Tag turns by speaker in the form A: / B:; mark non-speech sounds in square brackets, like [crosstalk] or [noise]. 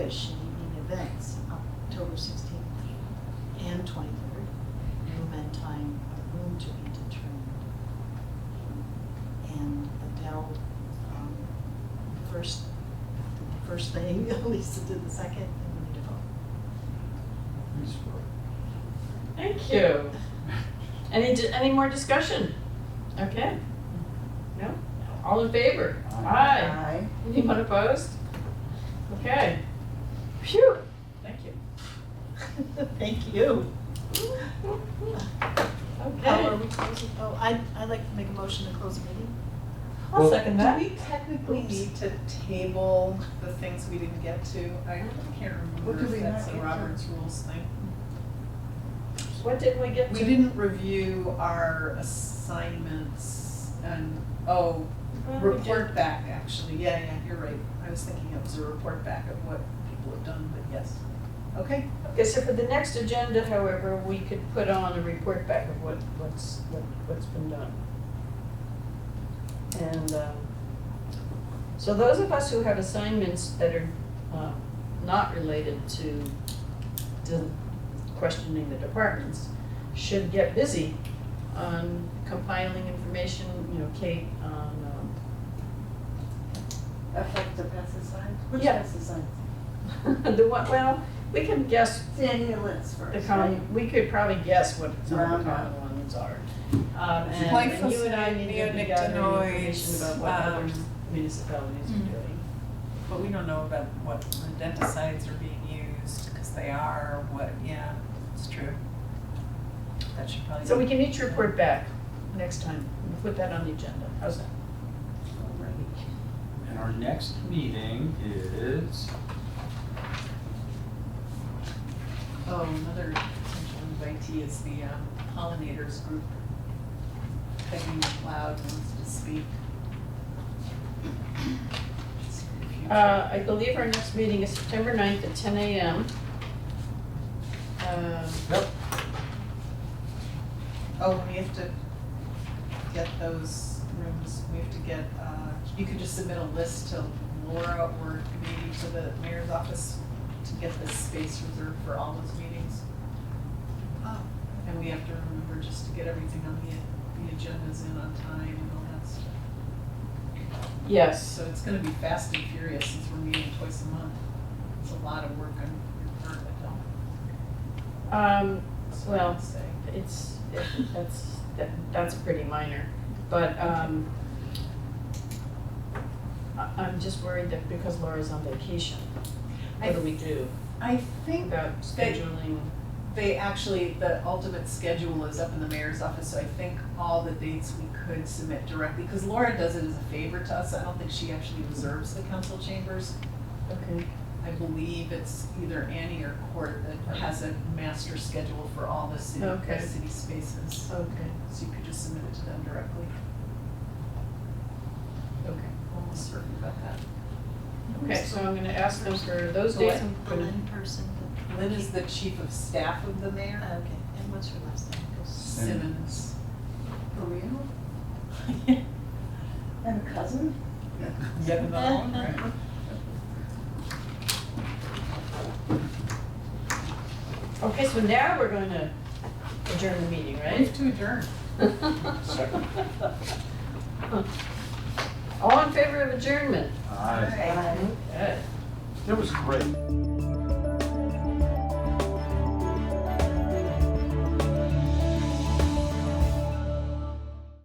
A: um, first thing, [laughs] Lisa did the second, and we did vote.
B: Thank you. Any, di- any more discussion? Okay. No? All in favor? Aye.
C: Aye.
B: Anyone opposed? Okay. Phew, thank you.
A: [laughs] Thank you. How are
B: Okay.
A: we closing? Oh, I, I'd like to make a motion to close the meeting.
B: I'll second
C: Do
B: that.
C: we technically
A: Oops.
C: need to table the things we didn't get to? I can't
D: What did
C: remember
D: we
C: if that's
D: not
C: a
D: get to?
C: Robert's rules thing.
B: What did we get
C: We
B: to?
C: didn't review our assignments and, oh,
B: What did we do?
C: report back, actually. Yeah, yeah, you're right. I was thinking it was a report back of what people have done, but yes. Okay,
B: Okay, so for the next agenda, however, we could put on a report back of what, what's, what- what's been done. And, um, so those of us who have assignments that are, um, not related to the questioning the departments, should get busy on compiling information, you know, Kate, on,
D: Effective pesticides? Which
B: Yeah.
D: pesticides?
B: um, [laughs] the one, well, we can guess
D: Stimulants
B: The
D: first, right?
B: common, we could probably guess what some of the
D: Roundup.
B: common ones are. Um, and- and you and I need to be gathering
C: Glyphosate,
B: information
C: neonicotinoids,
B: about what other
C: um,
B: municipalities are
C: mm.
B: doing.
C: but we don't know about what rodenticides are being used, because they are, what, yeah, it's true. That should probably.
B: So we
C: be-
B: can each report back next time, We'll put that on the agenda, how's that?
E: And our next meeting is,
C: Oh, another potential invitee is the um, pollinators group. Peggy McLeod wants to speak.
B: Uh, I believe our next meeting is September 9th at ten AM. Um,
E: yep,
C: Oh, we have to get those rooms, we have to get, uh, you could just submit a list to Laura or maybe to the mayor's office to get this space reserved for all those meetings. And we have to remember just to get everything on the, the agendas in on time and all that stuff.
B: Yes,
C: So it's gonna be fast and furious since we're meeting twice a month. It's a lot of work on your part, I don't,
B: um,
C: that's what I
B: well,
C: would say.
B: It's, it- that's, that, that's pretty minor, but, um, I, I'm just worried that because Laura's on vacation, what do we do
C: I think
B: about
C: that-
B: scheduling?
C: they actually, the ultimate schedule is up in the mayor's office, so I think all the dates we could submit directly, because Laura does it as a favor to us, I don't think she actually reserves the council chambers.
B: Okay.
C: I believe it's either Annie or Court that has a master schedule for all the city,
B: Okay.
C: the city spaces,
B: Okay,
C: so you could just submit it to them directly.
B: okay.
C: Almost certain about that.
B: Okay, so I'm gonna ask them for those
C: So what-
B: dates, I'm
A: The
B: gonna,
A: Lynn person, the.
C: Lynn is the chief of staff of the
A: Oh,
C: mayor.
A: Okay, and what's her last name? 'Cause-
C: Simmons.
D: For real? And a cousin?
C: Yep, [laughs]
B: okay, so now we're gonna adjourn the meeting,
C: Move
B: right?
C: to adjourn.
E: Second.
B: All in favor of adjournment?
E: Aye.
D: Aye.
B: Okay.
E: That was great.